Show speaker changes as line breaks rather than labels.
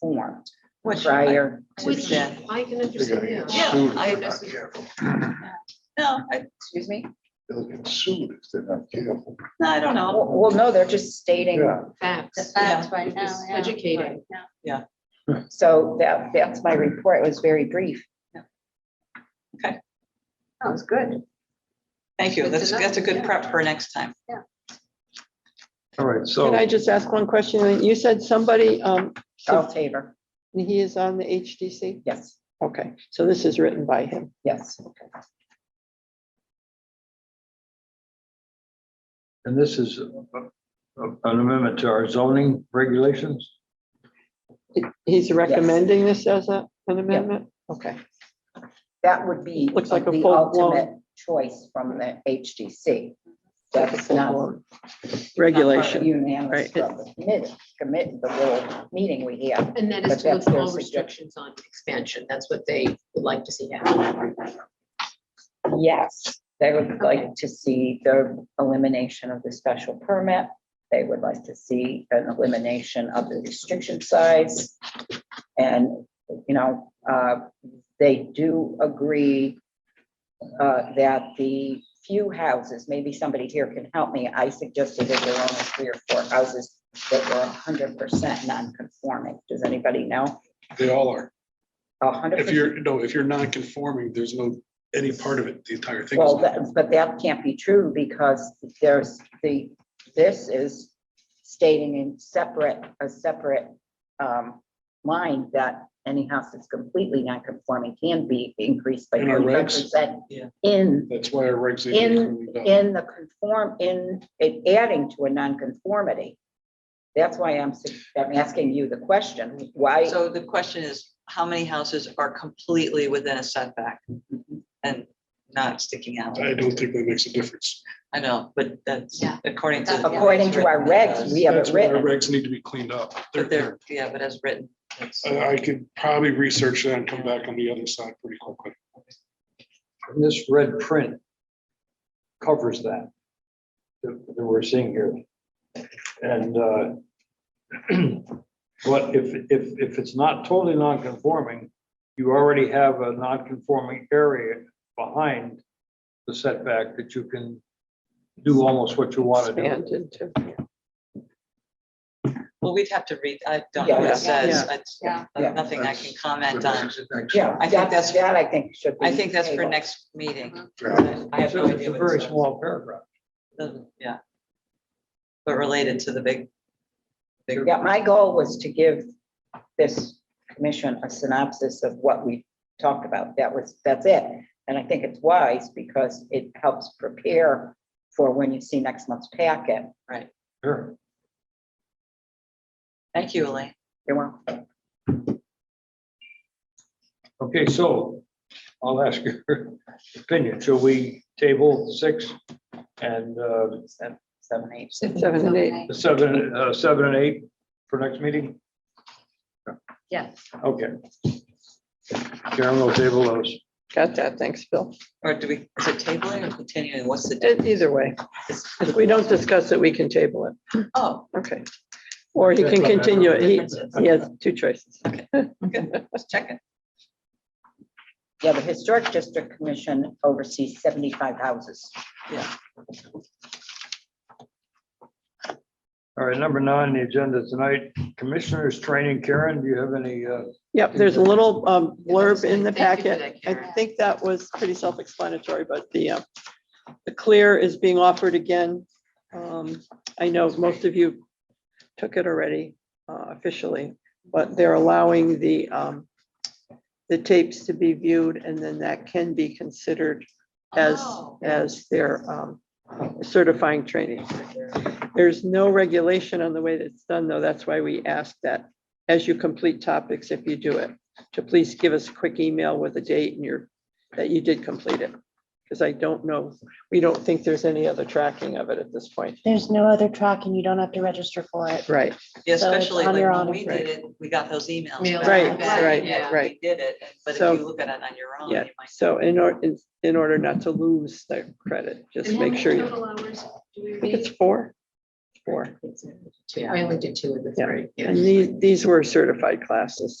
formed
Which,
prior to
Which
that.
I can
They're gonna get
understand.
Yeah,
sued if
I
they're not
understand.
careful.
no, I,
Excuse me?
They'll get sued if they're not careful.
no, I don't know.
Well, well, no, they're just stating,
Yeah,
The
Facts.
facts right now.
Just
yeah,
educating.
right now.
so that, that's my report. It was very brief.
That was good.
Thank you.
Good to
That's,
know,
that's a good
yeah.
prep for next time.
all right,
Can I
so,
just ask one question? You said somebody, um,
Charles Tabor,
he is on the HDC?
yes,
Okay, so this is written by him.
yes.
and this is a- a- an amendment to our zoning regulations?
He's recommending this as a- an amendment? Okay,
That would be
Looks like a
the
full-blown-
ultimate choice from the HDC.
Like a
That's not.
full-blown
not part of
regulation.
Unanimous
right.
from the committee, commit, the little meeting we had.
And that
But
is
that's
to
their
withdraw
suggestion.
restrictions on expansion. That's what they would like to see happen.
Yes, they would
Okay.
like to see the elimination of the special permit. They would like to see an elimination of the restriction size. And, you know, uh, they do agree uh, that the few houses, maybe somebody here can help me. I suggested that there were only three or four houses that were hundred percent non-conforming. Does anybody know?
They all are.
hundred
If
percent.
you're, no, if you're not conforming, there's no, any part of it, the entire thing. is
Well,
not-
that- but that can't be true because there's the, this is stating in separate, a separate um, line that any house that's completely non-conforming can be increased by
In our
thirty-five
regs?
percent
Yeah.
in,
That's why our regs. they
in,
cleaned up.
in the conform, in, in adding to a non-conformity. That's why I'm, su- I'm asking you the question, why?
So the question is, how many houses are completely within a setback and not sticking out?
I don't think that makes a difference.
I know, but that's
Yeah.
according to.
According to our regs, we have it
That's why our
written.
regs need to be cleaned up. They're
But they're,
there.
yeah, but as written. it's-
I I could probably research that and come back on the other side pretty quickly.
And This red print covers that, that that we're seeing here. And uh, but if, if, if it's not totally non-conforming, you already have a non-conforming area behind the setback that you can do almost what you want to do.
Expand into.
Well, we'd have to read, I don't know what
Yeah.
it says. It's
Yeah.
Yeah.
nothing I can comment on.
Yeah,
I think
that's,
that's-
that I think should be.
I think that's for
tabled.
next meeting.
Uh-huh.
I have
It's
no
a-
idea.
it's a
what it
very
says.
small paragraph.
Doesn't- Yeah. But related to the big. bigger-
Yeah, my goal was to give this commission a synopsis of what we talked about. That was, that's it. And I think it's wise because it helps prepare for when you see next month's packet.
Sure.
Thank you, Elaine.
You know,
Okay, so I'll ask your opinion. Shall we table six and uh,
seven, seven, eight.
Seven and eight.
Okay.
seven, uh, seven and eight for next meeting?
Yes.
Okay. Karen will table those.
Got that. Thanks, Bill.
Or do we, is it tabling or continuing? What's the?
E- Either way,
difference?
if we don't discuss it, we can table it.
Oh,
Okay. Or he can continue it. He, he has two choices.
let's check it.
Yeah, the Historic District Commission oversees seventy-five houses.
All right, number nine, on the agenda tonight, commissioners training. Karen, do you have any? uh,
Yep, there's a little um, blurb in the
Thank you for that,
packet. I
Karen.
think that was pretty self-explanatory, but the, uh, the clear is being offered again. Um, I know most of you took it already uh, officially, but they're allowing the, um, the tapes to be viewed and then that can be considered as,
Oh.
as their um, certifying training. There's no regulation on the way that's done, though. That's why we ask that as you complete topics, if you do it, to please give us a quick email with a date and your, that you did complete it. Because I don't know, we don't think there's any other tracking of it at this point.
There's no other track and you don't have to register for it.
Right,
Yeah,
So it's
Especially
on
like
your
when
own,
we did
right.
it, we got those emails.
Mail
back.
right,
Back,
right,
yeah.
right.
We did it, but if
So-
you look at it on your own,
Yeah,
you might.
so in order, in order not to lose the credit, just
And how
make
many
sure, you-
Total hours do we
I think it's
read?
four, four.
Two, I only did two of the
Yeah.
three. yeah.
And these, these were certified classes.